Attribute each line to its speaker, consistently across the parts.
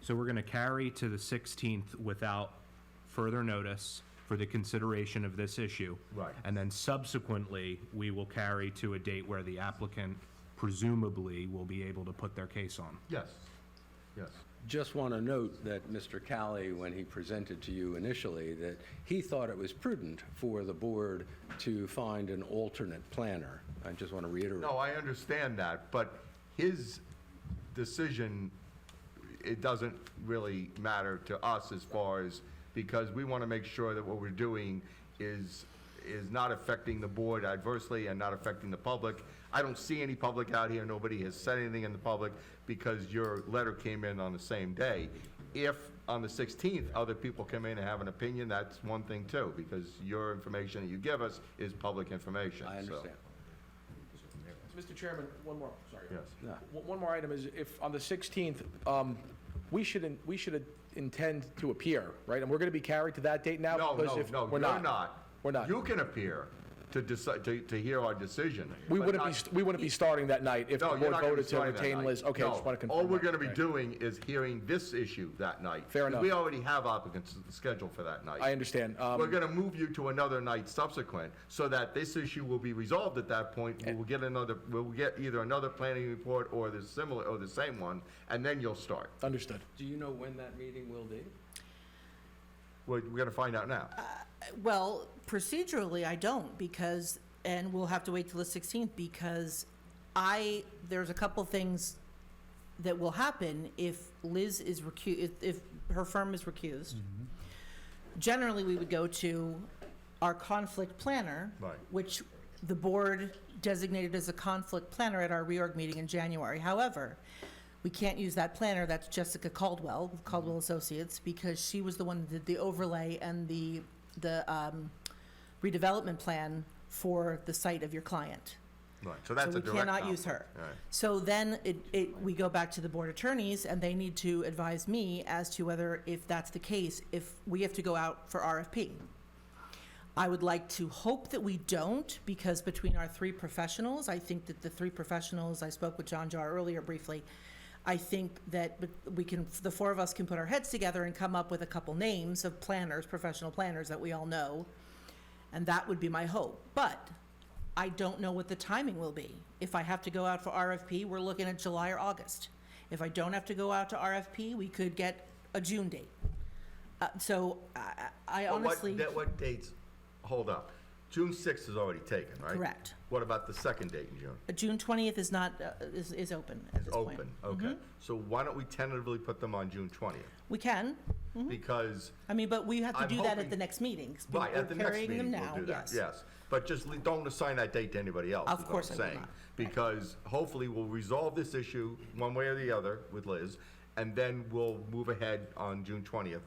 Speaker 1: So we're going to carry to the 16th without further notice for the consideration of this issue.
Speaker 2: Right.
Speaker 1: And then subsequently, we will carry to a date where the applicant presumably will be able to put their case on.
Speaker 2: Yes, yes.
Speaker 3: Just want to note that Mr. Callie, when he presented to you initially, that he thought it was prudent for the board to find an alternate planner. I just want to reiterate.
Speaker 2: No, I understand that, but his decision, it doesn't really matter to us as far as, because we want to make sure that what we're doing is, is not affecting the board adversely and not affecting the public. I don't see any public out here, nobody has said anything in the public, because your letter came in on the same day. If, on the 16th, other people come in and have an opinion, that's one thing too, because your information that you give us is public information,
Speaker 3: I
Speaker 2: so.
Speaker 3: understand.
Speaker 4: Mr. Chairman, one more, sorry.
Speaker 2: Yes.
Speaker 3: Yeah.
Speaker 4: One one more item is if, on the 16th, um, we should, in- we should intend to appear, right? And we're going to be carried to that date now?
Speaker 2: No,
Speaker 4: because
Speaker 2: no,
Speaker 4: if
Speaker 2: no,
Speaker 4: we're
Speaker 2: you're not.
Speaker 4: We're not.
Speaker 2: You can appear to decide, to, to hear our decision.
Speaker 4: We
Speaker 2: but
Speaker 4: wouldn't
Speaker 2: not-
Speaker 4: be, st- we wouldn't be starting that night if the
Speaker 2: No,
Speaker 4: board
Speaker 2: you're not gonna be
Speaker 4: voted to
Speaker 2: starting that
Speaker 4: retain
Speaker 2: night.
Speaker 4: Liz. Okay, I
Speaker 2: No,
Speaker 4: just want to confirm.
Speaker 2: All we're
Speaker 4: that.
Speaker 2: gonna be
Speaker 4: Right.
Speaker 2: doing is hearing this issue that night.
Speaker 4: Fair
Speaker 2: 'cause
Speaker 4: enough.
Speaker 2: We already have applicants scheduled for that night.
Speaker 4: I understand. Um,
Speaker 2: We're gonna move you to another night subsequent, so that this issue will be resolved at that point.
Speaker 4: Eh.
Speaker 2: We will get another, we'll get either another planning report or the similar, or the same one, and then you'll start.
Speaker 4: Understood.
Speaker 3: Do you know when that meeting will be?
Speaker 2: We're, we're gonna find out
Speaker 5: Uh,
Speaker 2: now.
Speaker 5: Well, procedurally, I don't because, and we'll have to wait till the 16th because I, there's a couple things that will happen if Liz is recu, if, if her firm is recused. Generally, we would go to our conflict planner.
Speaker 2: Right.
Speaker 5: Which the board designated as a conflict planner at our reorg meeting in January. However, we can't use that planner, that's Jessica Caldwell, of Caldwell Associates, because she was the one that did the overlay and the, the um, redevelopment plan for the site of your client.
Speaker 2: Right, so that's a direct
Speaker 5: So we cannot use her.
Speaker 2: conflict. All right.
Speaker 5: So then it, it, we go back to the board attorneys and they need to advise me as to whether, if that's the case, if we have to go out for RFP. I would like to hope that we don't because between our three professionals, I think that the three professionals, I spoke with John Jar earlier briefly. I think that bet- we can, the four of us can put our heads together and come up with a couple names of planners, professional planners that we all know. And that would be my hope. But I don't know what the timing will be. If I have to go out for RFP, we're looking at July or August. If I don't have to go out to RFP, we could get a June date. Uh, So I- I I
Speaker 2: But
Speaker 5: honestly.
Speaker 2: What, that- what dates, hold up, June sixth is already taken, right?
Speaker 5: Correct.
Speaker 2: What about the second date in June?
Speaker 5: Uh, June twentieth is not, uh, is, is open at
Speaker 2: It's
Speaker 5: this point. Mm-hmm.
Speaker 2: open, okay. So why don't we tentatively put them on June twentieth?
Speaker 5: We can,
Speaker 2: Because,
Speaker 5: I mean, but we have to
Speaker 2: I'm
Speaker 5: do that
Speaker 2: hoping-
Speaker 5: at the next meetings. We-
Speaker 2: right,
Speaker 5: we're
Speaker 2: at the next
Speaker 5: carrying
Speaker 2: meeting,
Speaker 5: them now,
Speaker 2: we'll do that,
Speaker 5: yes.
Speaker 2: yes. But just le- don't assign that date to anybody else,
Speaker 5: Of
Speaker 2: is what
Speaker 5: course
Speaker 2: I'm
Speaker 5: I will
Speaker 2: saying.
Speaker 5: not.
Speaker 2: Because hopefully we'll resolve this issue one way or the other with Liz, and then we'll move ahead on June twentieth,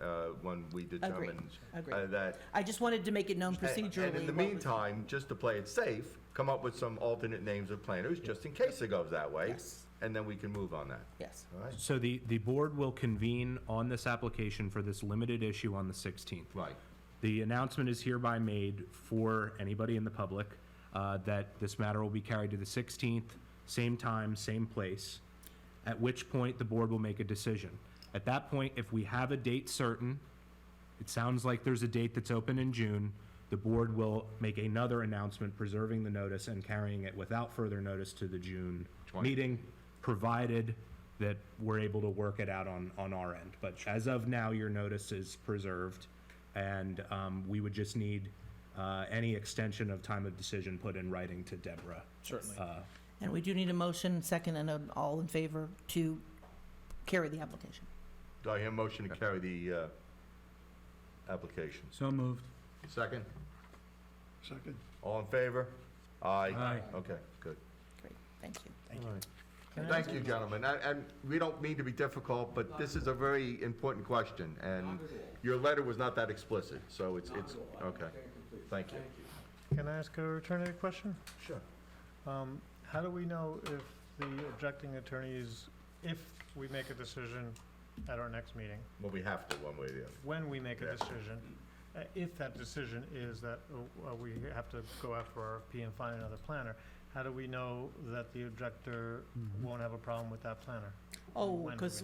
Speaker 2: uh, when we determine uh,
Speaker 5: agreed.
Speaker 2: that
Speaker 5: I just wanted to make it known
Speaker 2: And-
Speaker 5: procedurally.
Speaker 2: And in the
Speaker 5: what was-
Speaker 2: meantime, just to play it safe, come up with some alternate names of planners, just in case it goes that way.
Speaker 5: Yes.
Speaker 2: And then we can move on that.
Speaker 5: Yes,
Speaker 2: All right?
Speaker 1: So the, the board will convene on this application for this limited issue on the 16th.
Speaker 2: Right.
Speaker 1: The announcement is hereby made for anybody in the public uh, that this matter will be carried to the 16th, same time, same place, at which point the board will make a decision. At that point, if we have a date certain, it sounds like there's a date that's open in June, the board will make another announcement preserving the notice and carrying it without further notice to the June meeting, provided that we're able to work it out on, on our end. But as of now, your notice is preserved, and um, we would just need uh, any extension of time of decision put in writing to Deborah.
Speaker 4: Certainly.
Speaker 5: and we do need a motion, second, and an all in favor to carry the application.
Speaker 2: Do I hear a motion to carry the uh, applications?
Speaker 6: So moved.
Speaker 2: Second?
Speaker 6: Second.
Speaker 2: All in favor? Aye.
Speaker 6: Aye.
Speaker 2: Okay, good.
Speaker 5: Great, thank you. Can I
Speaker 2: Thank you, gentlemen. And, and we don't mean to be difficult, but this is a very important question, and your letter was not that explicit, so it's, it's, okay. Thank you.
Speaker 7: Can I ask a return of the question?
Speaker 2: Sure.
Speaker 7: Um, How do we know if the objecting attorney is, if we make a decision at our next meeting,
Speaker 2: Well, we have to, one way or the other.
Speaker 7: when we make a
Speaker 2: Yeah.
Speaker 7: decision, uh, if that decision is that uh, uh, we have to go out for RFP and find another planner, how do we know that the objector won't have a problem with that planner?
Speaker 5: Oh,
Speaker 7: When do we
Speaker 5: because